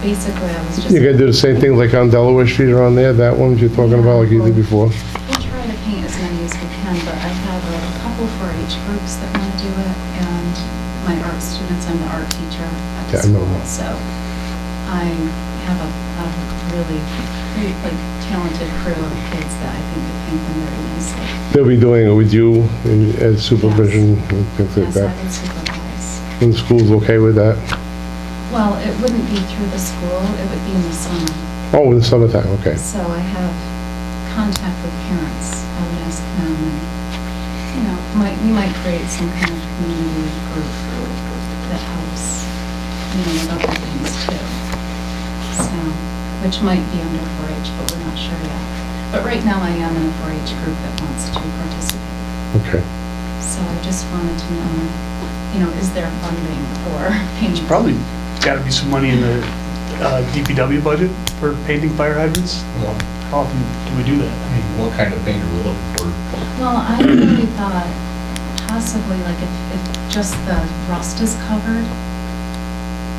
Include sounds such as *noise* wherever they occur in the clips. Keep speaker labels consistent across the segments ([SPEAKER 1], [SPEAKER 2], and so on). [SPEAKER 1] basically, I was just.
[SPEAKER 2] You're gonna do the same thing like on Delaware Street around there, that one you're talking about like you did before?
[SPEAKER 1] We'll try to paint as many as we can, but I have a couple for each groups that want to do it, and my art students, I'm the art teacher at the
[SPEAKER 2] Yeah, I know
[SPEAKER 1] school,
[SPEAKER 2] that.
[SPEAKER 1] so I have a, a really, great, like, talented crew of kids that I think could paint them very nicely.
[SPEAKER 2] They'll be doing it with you and and supervision and things like
[SPEAKER 1] Yes, I
[SPEAKER 2] that.
[SPEAKER 1] would supervise.
[SPEAKER 2] And the school's okay with that?
[SPEAKER 1] Well, it wouldn't be through the school, it would be in the summer.
[SPEAKER 2] Oh, in the summertime, okay.
[SPEAKER 1] So I have contact with parents. I would ask them, and, you know, might, we might create some kind of community group that helps, you know, with other things too. So, which might be under 4-H, but we're not sure yet. But right now I am in a 4-H group that wants to participate.
[SPEAKER 2] Okay.
[SPEAKER 1] So I just wanted to know, you know, is there funding for *laughs* painting?
[SPEAKER 3] Probably got to be some money in the uh, DPW budget for painting fire hydrants.
[SPEAKER 4] Well,
[SPEAKER 3] How often do we do that?
[SPEAKER 4] I mean, what kind of paint are we looking for?
[SPEAKER 1] Well, I really thought possibly like if, if just the rust is covered.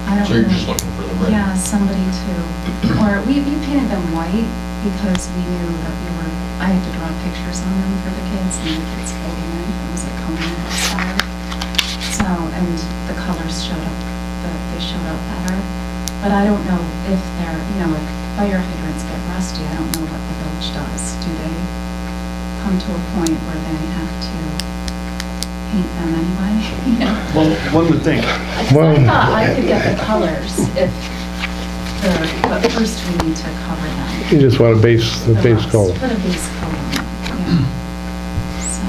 [SPEAKER 1] I don't
[SPEAKER 4] So you're
[SPEAKER 1] know.
[SPEAKER 4] just looking for the red?
[SPEAKER 1] Yeah, somebody to, or we, we painted them white because we knew that we were, I had to draw pictures on them for the kids and the kids came in, it was like coming outside. So, and the colors showed up, the, they showed up better. But I don't know if they're, you know, if fire hydrants get rusty, I don't know what the village does. Do they come to a point where they have to paint them anyway? *laughs* You know?
[SPEAKER 3] Well, one would think.
[SPEAKER 1] Because I
[SPEAKER 2] Well-
[SPEAKER 1] thought I could get the colors if, the- but first we need to cover them.
[SPEAKER 2] You just want a base, the base
[SPEAKER 1] rocks.
[SPEAKER 2] color.
[SPEAKER 1] Put a base color on them, yeah. So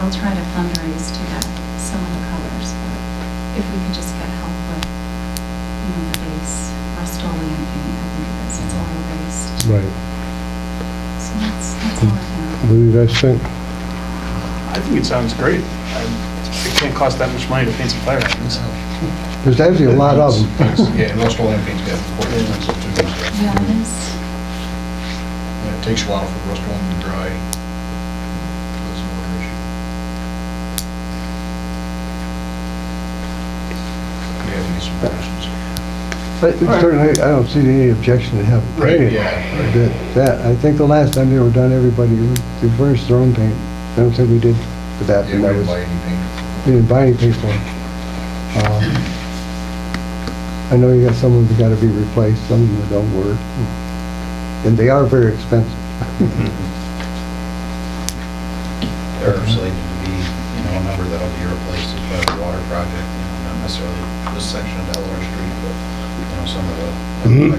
[SPEAKER 1] I'll try to fundraise to get some of the colors, but if we could just get help with, you know, the base, Rust-Oleum paint, I think it is, it's all erased.
[SPEAKER 2] Right.
[SPEAKER 1] So that's, that's all I have.
[SPEAKER 2] What do you guys think?
[SPEAKER 3] I think it sounds great. I- It can't cost that much money to paint some fire hydrants.
[SPEAKER 5] There's actually a lot of them.
[SPEAKER 4] Yeah, and Rustle Land paint's got four inches of two inches.
[SPEAKER 1] Yeah, it is.
[SPEAKER 4] And it takes a while for Rustle Land to dry. That's another issue. Do you have any suggestions?
[SPEAKER 5] But certainly, I don't see any objection to having painted.
[SPEAKER 4] Yeah. right.
[SPEAKER 5] That, that- I think the last time they were done, everybody reversed their own paint. I don't think we did for that.
[SPEAKER 4] Yeah,
[SPEAKER 5] and
[SPEAKER 4] we
[SPEAKER 5] that
[SPEAKER 4] didn't
[SPEAKER 5] was-
[SPEAKER 4] buy any paint.
[SPEAKER 5] We didn't buy any paint for it. Um, I know you got some of them that gotta be replaced, some of them that don't work. And they are very expensive.
[SPEAKER 6] There are slated to be, you know, a number that'll be replaced as part of the water project, you know, not necessarily this section of Delaware Street, but, you know, some of the new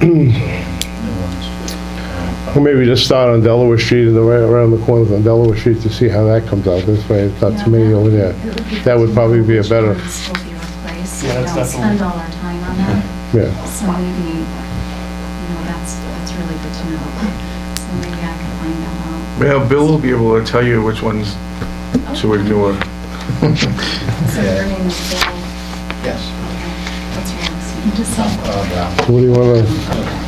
[SPEAKER 6] ones. Um,
[SPEAKER 2] Or maybe just start on Delaware Street and the right around the corner on Delaware Street to see how that comes out. This way, it's not
[SPEAKER 1] Yeah,
[SPEAKER 2] too many
[SPEAKER 1] that-
[SPEAKER 2] over there.
[SPEAKER 1] it be
[SPEAKER 2] That would
[SPEAKER 1] good to
[SPEAKER 2] probably
[SPEAKER 1] know
[SPEAKER 2] be a
[SPEAKER 1] which
[SPEAKER 2] better-
[SPEAKER 1] ones will be replaced, so we
[SPEAKER 3] Yeah, that's
[SPEAKER 1] don't
[SPEAKER 3] definitely-
[SPEAKER 1] spend all our time on that.
[SPEAKER 2] Yeah.
[SPEAKER 1] So maybe, you know, that's, that's really good to know. So maybe I can find that out.
[SPEAKER 7] Well, Bill will be able to tell you which ones to ignore.
[SPEAKER 1] So your name is Bill,
[SPEAKER 6] Yes.
[SPEAKER 1] okay, that's your last name, just so.
[SPEAKER 6] Uh, Brown.
[SPEAKER 2] So What do you wanna,
[SPEAKER 1] so, yeah.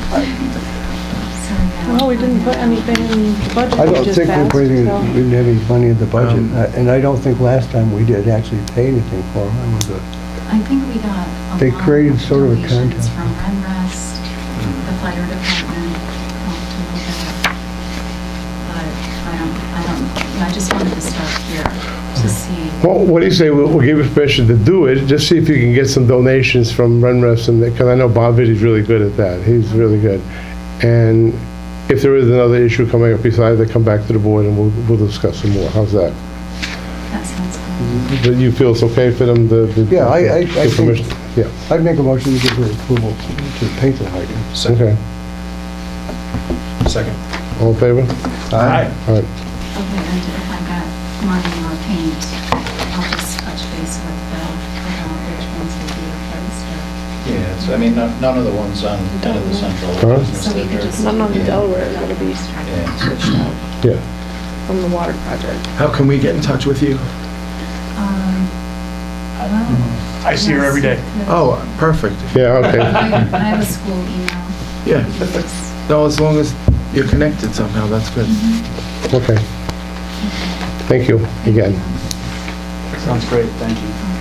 [SPEAKER 8] Well, we didn't put anything in the budget.
[SPEAKER 5] I
[SPEAKER 8] we
[SPEAKER 5] don't
[SPEAKER 8] just
[SPEAKER 5] think we
[SPEAKER 8] passed,
[SPEAKER 5] put any,
[SPEAKER 8] so-
[SPEAKER 5] we didn't have any money in the budget,
[SPEAKER 7] Um,
[SPEAKER 5] I- and I don't think last time we did actually pay anything for them. It was a-
[SPEAKER 1] I think we got a
[SPEAKER 5] They
[SPEAKER 1] lot of
[SPEAKER 5] created sort of a
[SPEAKER 1] donations
[SPEAKER 5] contest.
[SPEAKER 1] from Renrest, the fire department, helped a little bit. But I don't, I don't, I just wanted to start here to see.
[SPEAKER 2] well, what do you say, we'll, we'll give you permission to do it, just see if you can get some donations from Renrest and, because I know Bob Vitti's really good at that. He's really good. And if there is another issue coming up besides that, come back to the board and we'll, we'll discuss some more. How's that?
[SPEAKER 1] That sounds good.
[SPEAKER 2] Do you feel it's okay for them to? to-
[SPEAKER 5] Yeah, I- I- I
[SPEAKER 2] give
[SPEAKER 5] think-
[SPEAKER 2] permission? Yeah,
[SPEAKER 5] I'd make a motion to give her approval to paint the hydrant.
[SPEAKER 2] okay.
[SPEAKER 4] Second.
[SPEAKER 2] All in favor? All right.
[SPEAKER 1] Okay, and if I got money or paint, I'll just touch base with Bill about which ones will be replaced. or-
[SPEAKER 6] Yeah, so I mean, none none of the ones on, none of the central
[SPEAKER 2] Huh?
[SPEAKER 6] business
[SPEAKER 1] So we could
[SPEAKER 6] district.
[SPEAKER 1] just.
[SPEAKER 8] None on
[SPEAKER 6] Yeah.
[SPEAKER 8] Delaware is gonna be
[SPEAKER 6] Yeah.
[SPEAKER 8] switched out
[SPEAKER 2] Yeah,
[SPEAKER 8] from the water project.
[SPEAKER 7] How can we get in touch with you?
[SPEAKER 1] Um, well,
[SPEAKER 3] I see her every day.
[SPEAKER 7] Oh, perfect.
[SPEAKER 2] yeah, okay.
[SPEAKER 1] I I have a school email.
[SPEAKER 7] Yeah. No, as long as you're connected somehow, that's good.
[SPEAKER 2] Okay. Thank you again.
[SPEAKER 3] Sounds great, thank you.
[SPEAKER 1] um,